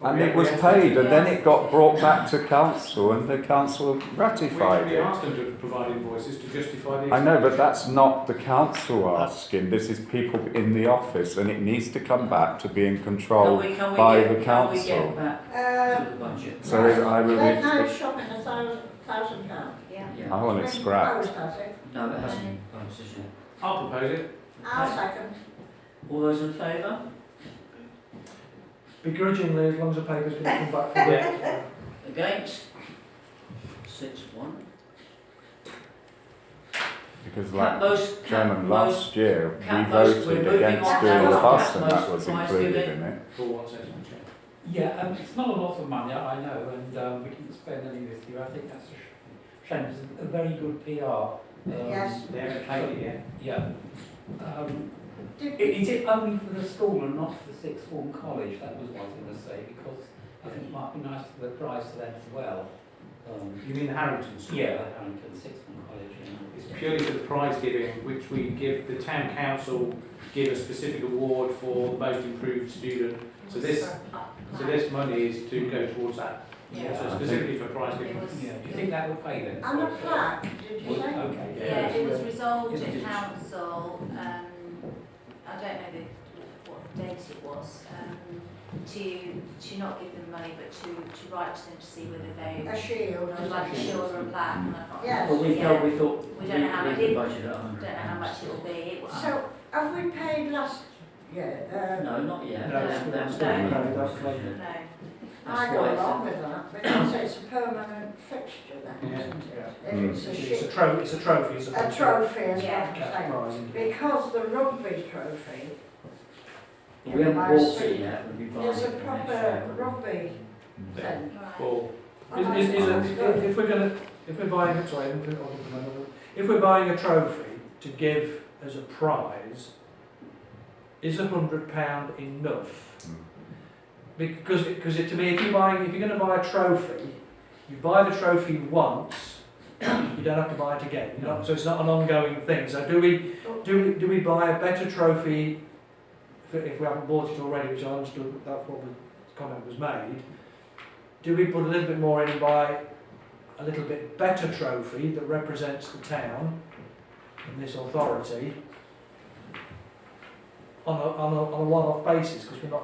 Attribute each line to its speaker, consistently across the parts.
Speaker 1: and it was paid, and then it got brought back to council, and the council
Speaker 2: We, we
Speaker 1: ratified it.
Speaker 2: asked them to provide invoices to justify the.
Speaker 1: I know, but that's not the council asking. This is people in the office, and it needs to come back to being
Speaker 3: Can
Speaker 1: controlled.
Speaker 3: we, can we
Speaker 1: by
Speaker 3: get,
Speaker 1: the
Speaker 3: can we
Speaker 1: council.
Speaker 3: get back
Speaker 4: Um,
Speaker 3: to the budget?
Speaker 1: So I will.
Speaker 4: There's no
Speaker 1: I
Speaker 4: shop in a thousand, thousand pound.
Speaker 5: Yeah.
Speaker 3: Yeah,
Speaker 1: want it scrapped.
Speaker 4: Closed, I think.
Speaker 3: no, it hasn't been closed, has it?
Speaker 2: I'll propose it.
Speaker 4: I'll second.
Speaker 3: All those in favour?
Speaker 6: Begrudgingly, as long as the paper's going to come back for it.
Speaker 2: Yeah.
Speaker 3: Against? Six, one.
Speaker 1: Because
Speaker 3: Cat
Speaker 1: like
Speaker 3: most, cat
Speaker 1: Chairman,
Speaker 3: most.
Speaker 1: last year, we
Speaker 3: Cat most-
Speaker 1: voted
Speaker 3: we're moving
Speaker 1: against
Speaker 4: on
Speaker 1: doing
Speaker 4: now.
Speaker 1: the bus,
Speaker 3: Cat
Speaker 1: and that
Speaker 3: most
Speaker 1: was
Speaker 3: twice
Speaker 1: included
Speaker 3: giving.
Speaker 1: in it.
Speaker 2: For one session, check.
Speaker 7: Yeah, um, it's not a lot of money, I know, and um, we didn't spend any this year. I think that's a sh- shame. It's a very good PR. Um,
Speaker 4: Yes.
Speaker 2: They haven't paid it yet.
Speaker 7: Yeah. Um, i-
Speaker 4: Did,
Speaker 7: is it only for the school and not for the sixth form college? That was what I was going to say because I think it might be nice for the price for them as well. Um,
Speaker 2: You mean the Harrington School?
Speaker 7: yeah, the Harrington sixth form college.
Speaker 2: It's
Speaker 7: You know.
Speaker 2: purely for the prize giving, which we give, the town council give a specific award for most improved student. So this, so this money is to go towards that.
Speaker 5: Yeah.
Speaker 2: So specifically for prize giving.
Speaker 7: Yeah. Do you think that will pay then?
Speaker 4: and a plaque, did you say?
Speaker 7: Okay.
Speaker 5: Yeah, it was resolved
Speaker 7: Yeah.
Speaker 5: at council, um, I don't know the, what date it was, um, to, to not give them money, but to, to write to them to see whether
Speaker 4: A
Speaker 5: they,
Speaker 4: shield or
Speaker 5: like a
Speaker 4: something.
Speaker 5: shield or a plaque, and I can't.
Speaker 4: Yes.
Speaker 3: Well, we
Speaker 5: Yeah.
Speaker 3: thought, we thought,
Speaker 5: We don't know how
Speaker 3: we-
Speaker 5: it
Speaker 3: we
Speaker 5: is.
Speaker 3: budgeted a
Speaker 5: Don't
Speaker 3: hundred
Speaker 5: know how much
Speaker 3: pounds.
Speaker 5: it will be, it was.
Speaker 4: So, have we paid last year?
Speaker 3: No, not yet.
Speaker 7: No,
Speaker 3: That-
Speaker 7: it's-
Speaker 3: that's
Speaker 7: it's-
Speaker 3: not-
Speaker 7: no, that's later.
Speaker 5: No,
Speaker 4: Uh, I
Speaker 3: That's
Speaker 4: go
Speaker 3: why it's-
Speaker 4: along with that, because it's a permanent fixture then, isn't it? If it's
Speaker 6: It's
Speaker 4: a
Speaker 6: a
Speaker 4: shield,
Speaker 6: trophy, it's a trophy, Mm. it's a.
Speaker 4: a trophy as
Speaker 5: Yeah.
Speaker 4: well,
Speaker 6: Prize, isn't it?
Speaker 4: because the rugby trophy
Speaker 3: We haven't bought it yet, we'll be buying it.
Speaker 4: is a
Speaker 3: for next
Speaker 4: proper
Speaker 3: year.
Speaker 4: rugby thing.
Speaker 5: right.
Speaker 2: Well,
Speaker 4: And I
Speaker 6: Is, is, is,
Speaker 4: thought it was
Speaker 6: it-
Speaker 4: Oh, good.
Speaker 6: if we're gonna, if we're buying, sorry, I'm gonna- I'll do another one. if we're buying a trophy to give as a prize, is a hundred pound enough?
Speaker 1: Mm.
Speaker 6: Because, because it, to me, if you're buying, if you're gonna buy a trophy, you buy the trophy once, you don't have to buy it again, you know, so it's not an ongoing thing, so do we, do we, do we buy a better trophy if, if we haven't bought it already, which I understood that's what the comment was made, do we put a little bit more in and buy a little bit better trophy that represents the town and this authority on a, on a, on a one-off basis, because we're not,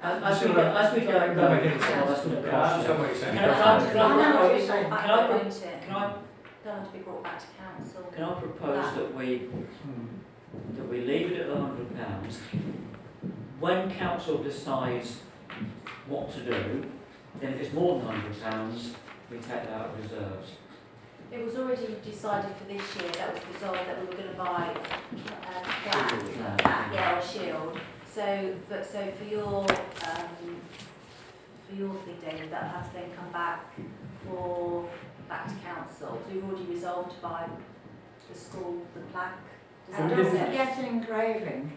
Speaker 3: As, as we go, as we go,
Speaker 6: That
Speaker 3: no,
Speaker 6: makes sense.
Speaker 3: that's
Speaker 2: I
Speaker 3: going to cost
Speaker 2: understand
Speaker 3: you.
Speaker 2: what you're saying.
Speaker 3: Can I-
Speaker 5: They'll
Speaker 3: can I-
Speaker 5: have to be
Speaker 3: can I- Can I,
Speaker 5: brought back, won't it? They'll have to be brought back to council.
Speaker 3: can I
Speaker 5: Ah.
Speaker 3: propose that we,
Speaker 6: Hmm.
Speaker 3: that we leave it at a hundred pounds? When council decides what to do, then if it's more than hundred pounds, we take that out of reserves.
Speaker 5: It was already decided for this year, that was resolved, that we were gonna buy um, a plaque, plaque, yeah, or shield. So, but, so for your, um, for your thing, David, that has to then come back for, back to council. So we've already resolved to buy the school, the plaque. Does
Speaker 4: And
Speaker 5: that
Speaker 4: does
Speaker 5: make
Speaker 4: it
Speaker 5: sense?
Speaker 4: get engraving?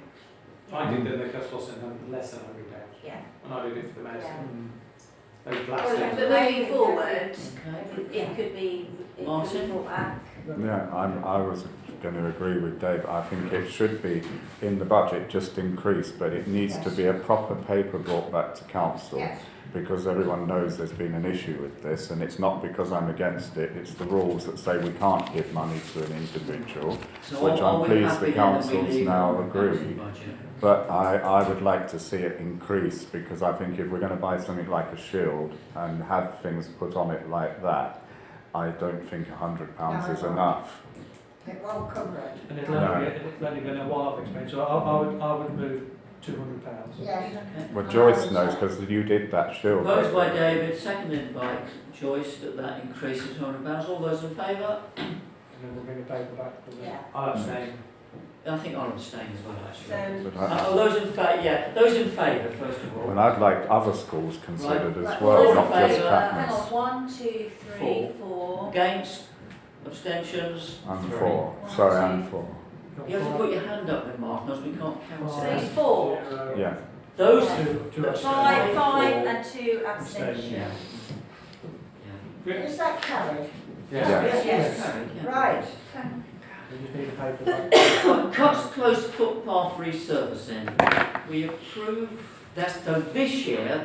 Speaker 2: I did the Nicholas Wilson less than hundred pounds,
Speaker 5: Yeah.
Speaker 2: and I did it for the mayor's,
Speaker 5: Yeah.
Speaker 2: those
Speaker 5: But
Speaker 2: last things.
Speaker 5: moving forward,
Speaker 3: Okay.
Speaker 5: it could be, it could be
Speaker 3: Martin?
Speaker 5: brought back.
Speaker 1: Yeah, I'm, I was going to agree with Dave. I think it should be in the budget just increased, but it needs to be a proper paper brought back to council.
Speaker 4: Yes,
Speaker 1: because everyone knows there's been an issue with this, and it's not because I'm against it, it's the rules that say we can't give money to an individual.
Speaker 3: So
Speaker 1: Which
Speaker 3: are-
Speaker 1: I'm
Speaker 3: are we
Speaker 1: pleased the
Speaker 3: happy then that we
Speaker 1: council's
Speaker 3: leave
Speaker 1: now
Speaker 3: the council
Speaker 1: agreed.
Speaker 3: budget?
Speaker 1: But I, I would like to see it increase because I think if we're going to buy something like a shield and have things put on it like that, I don't think £100 is
Speaker 4: No.
Speaker 1: enough.
Speaker 4: it won't cover it.
Speaker 6: and it'll only, be- it'll only be a one-off expense, so I, I would, I would move two hundred pounds.
Speaker 4: Yes,
Speaker 3: Okay.
Speaker 1: Well, Joyce knows because you did that shield.
Speaker 3: Proposed by David, seconded by Joyce, that that increases hundred pounds. All those in favour?
Speaker 6: And then we'll bring the paper back to the.
Speaker 4: yeah.
Speaker 2: I'll abstain.
Speaker 3: I think I'll abstain as well, actually.
Speaker 4: So,
Speaker 1: But
Speaker 3: Uh,
Speaker 1: I,
Speaker 3: oh, those in fa, yeah, those in favour, first of all.
Speaker 1: well, I'd like other schools considered
Speaker 4: Right.
Speaker 1: as
Speaker 3: Right.
Speaker 1: well, not just
Speaker 3: Right.
Speaker 5: Hang
Speaker 1: Patmos.
Speaker 5: on, one, two, three, four.
Speaker 3: Against, abstentions?
Speaker 1: I'm
Speaker 3: Three.
Speaker 1: for. Sorry, I'm for.
Speaker 3: You have to put your hand up then, Mark, because we can't count
Speaker 5: Three,
Speaker 3: it.
Speaker 5: four.
Speaker 1: Yeah.
Speaker 3: Those,
Speaker 6: Two, two
Speaker 3: Five.
Speaker 6: abstains.
Speaker 5: Five, five and two abstentions.
Speaker 3: yeah.
Speaker 4: Is that carried?
Speaker 1: Yeah.
Speaker 3: Yeah.
Speaker 4: Yes.
Speaker 3: Carried, yeah.
Speaker 4: Right.
Speaker 6: We just need a paper back.
Speaker 3: Cuts closed footpath resurfacing. We approve, that's done this year,